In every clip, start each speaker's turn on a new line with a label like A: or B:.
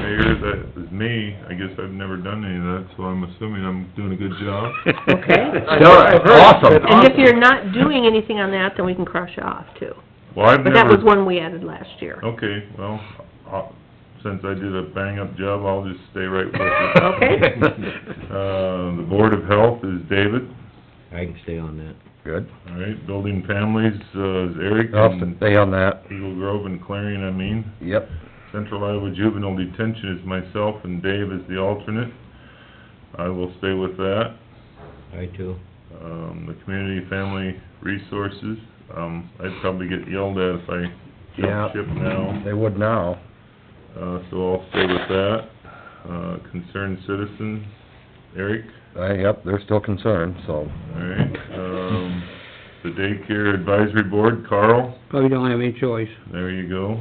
A: mayor, that is me, I guess I've never done any of that, so I'm assuming I'm doing a good job.
B: Okay.
C: Still, awesome.
B: And if you're not doing anything on that, then we can cross you off too.
A: Well, I've
B: But that was
A: never, Oh.
B: one we added last year.
A: okay, well, I'll- since I did a bang-up job, I'll just stay right with it.
B: Okay.
A: Uh, the Board of Health is David,
D: I can stay on that.
C: Good.
A: all right, Building Families, uh, is Eric,
C: I'll
A: and
C: stay on that.
A: Eagle Grove and Clarion, I mean.
C: Yep.
A: Central Iowa Juvenile Detention is myself, and Dave is the alternate. I will stay with that.
D: I too.
A: um, the community family resources. Um, I'd probably get yelled at if I
C: Yeah.
A: jump ship now,
C: They would now.
A: uh, so I'll stay with that. Uh, concerned citizens, Eric,
C: I, Uh, yep, they're still concerned, so.
A: all right. Um, the daycare advisory board, Carl,
E: Probably don't have any choice.
A: there you go.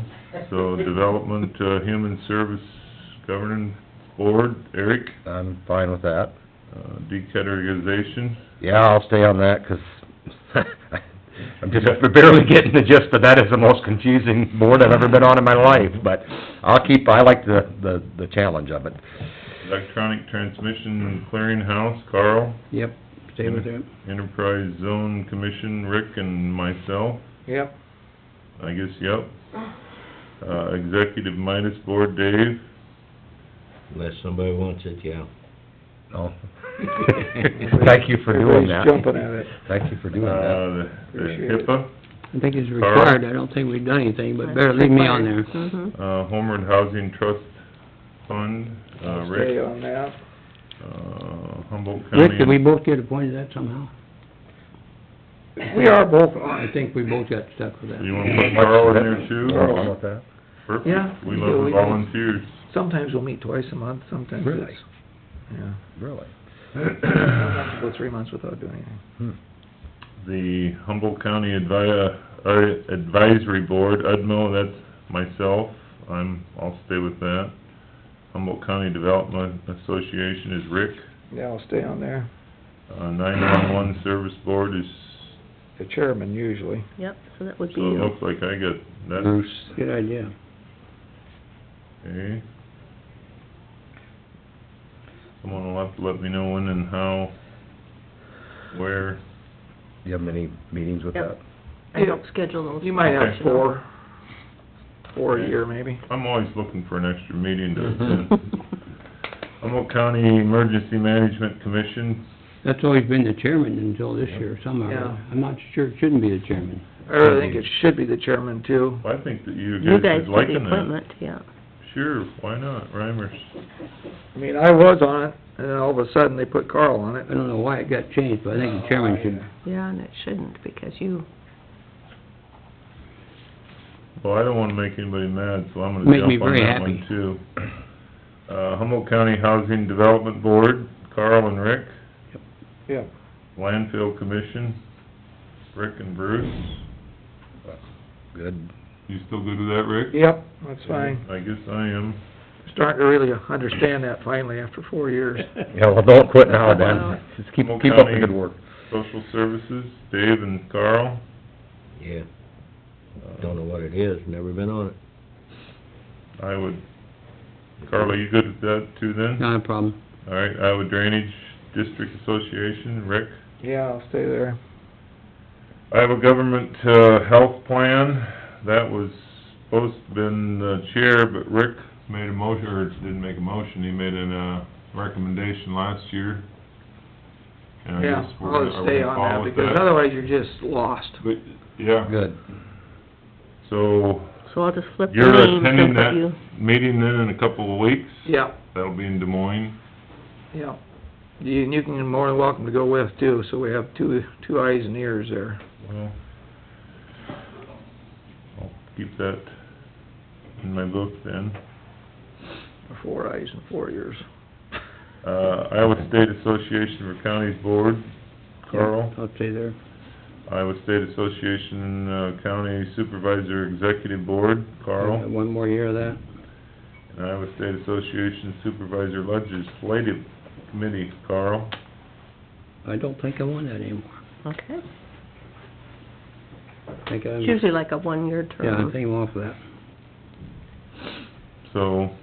A: So development, uh, human service governing board, Eric,
C: I'm fine with that.
A: uh, decategorization,
C: Yeah, I'll stay on that, 'cause I'm just barely getting the gist, but that is the most confusing board I've ever been on in my life, but I'll keep, I like the, the, the challenge of it.
A: electronic transmission clearinghouse, Carl.
E: Yep, stay with it.
A: Enterprise Zone Commission, Rick and myself,
E: Yep.
A: I guess, yep. Uh, Executive Midas Board, Dave,
D: Unless somebody wants it, yeah.
C: Oh. Thank you for doing that.
E: Everybody's jumping at it.
C: Thank you for
A: uh,
C: doing that.
A: the the
E: Appreciate it.
A: HIPAA,
E: I think it's
A: Carl?
E: required, I don't think we've done anything, but better leave me on there.
B: hmm
A: uh, Homeward Housing Trust Fund, uh, Rick,
E: on that.
A: uh, Humboldt
E: Rick,
A: County.
E: did we both get appointed that somehow? We are both on. I think we Oh, both got stuck with
A: You
E: that.
A: wanna put Carl in there too?
C: Carl, I'm with that.
A: Perfect.
F: Yeah,
A: We
F: we
A: love
F: do,
A: the
F: we do.
A: volunteers.
F: Sometimes we'll meet twice a month, sometimes
C: Really?
F: it's, yeah.
C: Really?
F: Sometimes we'll go three months without doing anything.
A: The Humboldt County Advi- uh, Advisory Board, UDMO, that's myself, I'm, I'll stay with that. Humboldt County Development Association is Rick.
F: Yeah, I'll stay on there,
A: Uh, nine-one-one service board is,
F: the chairman usually.
B: Yep, so that would be
A: so it
B: you.
A: looks like I got that,
C: Bruce,
E: Good idea.
A: okay. Someone will have to let me know when and how, where,
C: you have many meetings with
B: Yep.
C: that?
A: oh.
B: I help schedule those.
F: You might have
A: Okay.
F: four, four
A: Okay.
F: a year maybe.
A: I'm always looking for an extra meeting to attend. Humboldt County Emergency Management Commission,
E: That's always been the chairman until this year somehow.
F: Yeah.
E: I'm not sure it shouldn't be the chairman.
F: I really think it should be the chairman too.
A: I think that you
B: You guys
A: guys is
B: did the
A: liking that.
B: appointment, yeah.
A: Sure, why not, Reimers?
F: I mean, I was on it, and then all of a sudden they put Carl on it.
E: I don't know why it got changed, but I think the chairman should,
B: Yeah, and it shouldn't, because you,
A: Well, I don't wanna make anybody mad, so I'm gonna
E: Make me
A: jump on
E: very
A: that one too. Uh, Humboldt County Housing Development Board, Carl and Rick.
F: Yeah.
A: Landfill Commission, Rick and Bruce.
C: Good.
A: You still good with that, Rick?
F: Yep, that's fine.
A: I guess I am.
F: Starting to really understand that finally after four years.
C: Yeah, well, don't quit now, Dan. Just keep, keep up the good work.
A: Social Services, Dave and Carl.
D: Yeah, don't know what it is, never been on it.
A: I would, Carla, you good with that too then?
E: not a problem.
A: All right, Iowa Drainage District Association, Rick.
F: Yeah, I'll stay there.
A: Iowa Government, uh, Health Plan, that was supposed to been the chair, but Rick made a motion, or didn't make a motion, he made an, uh, recommendation last year. And I
F: Yeah,
A: guess we're gonna-
F: I'll
A: are we
F: stay
A: gonna
F: on
A: follow
F: that
A: with
F: because
A: that?
F: otherwise you're just lost.
A: But, yeah,
C: Good.
A: so,
B: so I'll just flip the
A: you're
B: name,
A: attending
B: since
A: that
B: you,
A: meeting then in a couple of weeks?
F: Yeah,
A: That'll be in Des Moines.
F: yeah. You, you can, you're more than welcome to go with too, so we have two, two eyes and ears there.
A: Well, I'll keep that in my book then.
F: Four eyes and four ears.
A: Uh, Iowa State Association for Counties Board, Carl.
E: I'll stay there.
A: Iowa State Association, uh, County Supervisor Executive Board, Carl.
E: One more year of that.
A: And Iowa State Association Supervisor Legislative Committee, Carl.
E: I don't think I want that anymore.
B: okay.
E: I think I'm,
B: It's
E: yeah,
B: usually like a one-year
E: I
B: term.
E: think I'm off of that.
A: So,